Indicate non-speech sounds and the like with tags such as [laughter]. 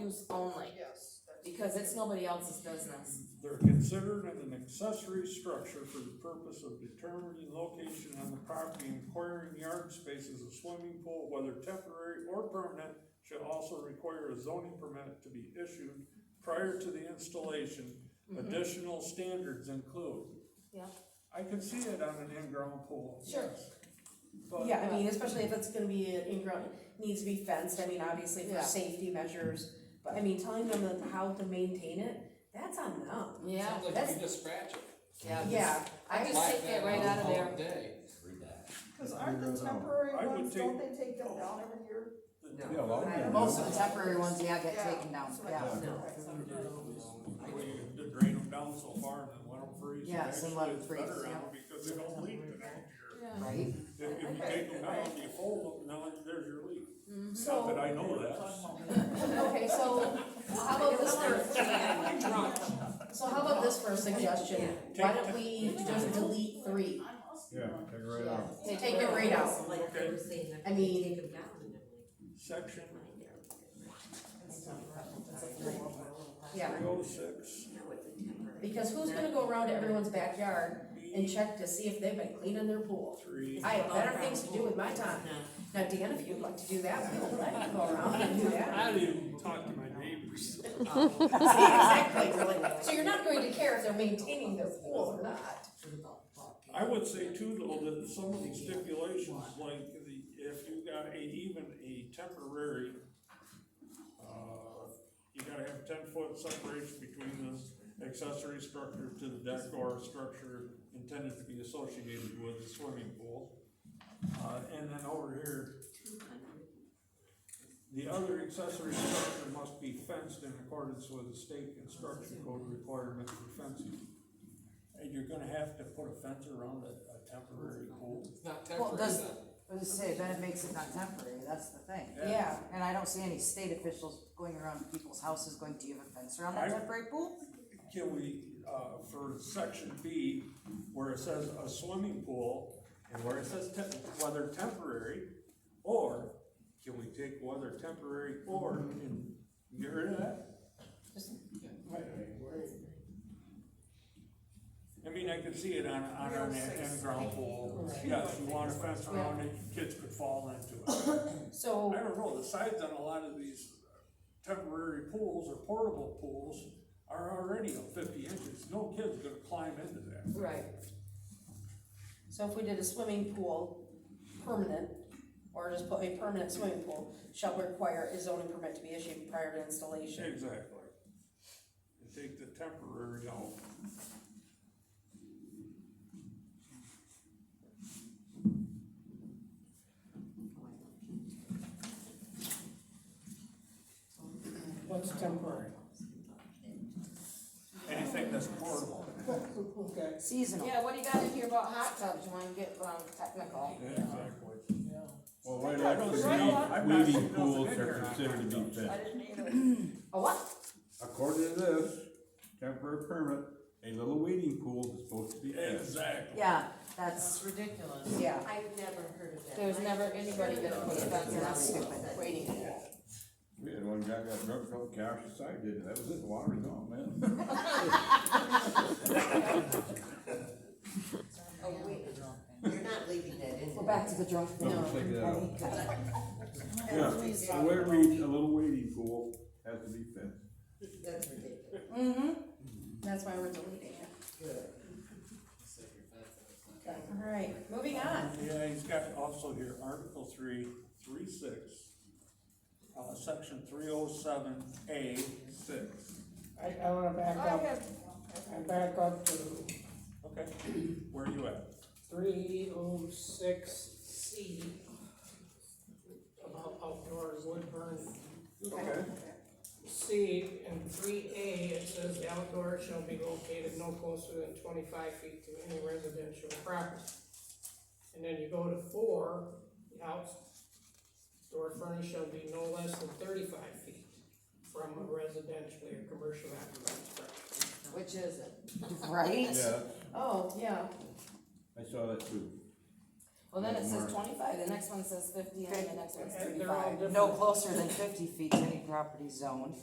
use only, Yes. that's- because it's nobody else's business. They're considered as an accessory structure for the purpose of determining location on the property, requiring yard space as a swimming pool, whether temporary or permanent, should also require a zoning permit to be issued prior to the installation. Mm-hmm. Additional standards include. Yeah. I can see it on an in-ground pool. Sure. yes. But- Yeah, I mean, especially if it's gonna be an in-ground, needs to be fenced, I mean, obviously for Yeah. safety measures, but I mean, telling them that how to maintain it, that's on them. Yeah, Sounds like that's- you just scratch it. yeah. Yeah, I just Wipe take that that right out of all there. day. Read that. Cause aren't the I temporary would ones, don't they take them down every year? Yeah, a lot of them. Most of the temporary ones, yeah, get Yeah, taken down, that's what I yeah. thought. No. Okay. Well, you can drain them down so far and then let them freeze. Yes, and let 'em Actually, it's freeze, better on yeah. 'em Because they don't leak the next year. Yeah. Right? If if you take them down, you fold them, now there's your leak. Not that so, I know that. [laughs] [laughs] okay, so how about this for, so how about this for a suggestion? Why don't we just delete three? Yeah, take it right out. They Take it right out. Like they were saying, I I mean- mean, take them down and I'm Section Yeah, three oh six like, no, it's a temporary. because who's gonna go around to everyone's backyard and check to see if they've been cleaning their pool? three. I have better things to do with my time. [laughs] Now, Dan, if you'd like to do that, we will let you go around and do [laughs] that. I didn't talk to my neighbors. Oh. [laughs] [laughs] Exactly, really. So you're not going to care if they're maintaining their pool or not. I would say too, though, that some of the stipulations, like the, if you got a, even a temporary, uh, you gotta have ten foot separation between the accessory structure to the deck or structure intended to be associated with the swimming pool. Uh, and then over here, the other accessory structure must be fenced in accordance with the state construction code requirement for fencing. And you're gonna have to put a fence around a, a temporary pool. It's not Well, temporary does- then. I was gonna say, then it makes it not temporary, that's the thing. Yeah. And I don't see any state officials going around people's houses going, do you have a fence around that I- temporary pool? Can we, uh, for section B, where it says a swimming pool, and where it says te- whether temporary, or, can we take whether temporary or, and get rid of that? I mean, I could see it on, on an in-ground pool, yes, you want a fence around it, kids could fall into it. So, I don't know, the sides on a lot of these temporary pools or portable pools are already up fifty inches, no kid's gonna climb into that. right. So if we did a swimming pool, permanent, or just put a permanent swimming pool, shall require a zoning permit to be issued prior to installation. Exactly. You Take the temporary out. What's temporary? Anything that's portable. Okay, Seasonal. Yeah, what do you got in here about hot tubs? You wanna get, um, technical? Exactly. yeah. Well, right I don't see- I'm not after sure weeding if pools it's in are there. considered to be fenced. A what? According to this, temporary permit, a little weeding pool is supposed to be fenced. Exactly. Yeah, that's, ridiculous. Yeah. I've never heard of that. There's I- never anybody gonna put a fence Yeah, around that's a stupid. waiting pool. We had one guy got drunk, fell couch, decided, did it. that was it, the water was gone, man. Oh, wait, you're not leaving that in. we're back to the drunk. No, uh, take that out. Okay. Yeah, [laughs] so where we, a little wading pool has to be fenced. That's ridiculous. Mm-hmm. That's why we're deleting it. Good. Set your fence up, it's not- All right, moving on. Yeah, he's got also here, Article three, three six, uh, section three oh seven A six. I, I wanna back I up, have, I back up to Okay, where are you at? three oh six C. About outdoors wood burn. Okay. C and three A, it says the outdoor shall be located no closer than twenty-five feet to any residential property. And then you go to four, the outdoor furnace shall be no less than thirty-five feet from a residential or commercial apparatus structure. Which is it? Right? Yeah, Oh, yeah. I saw that too. Well, then it says Mark. twenty-five, the next one says fifty, and then the next one's And they're all thirty-five. different. No closer than fifty feet to any property zoned.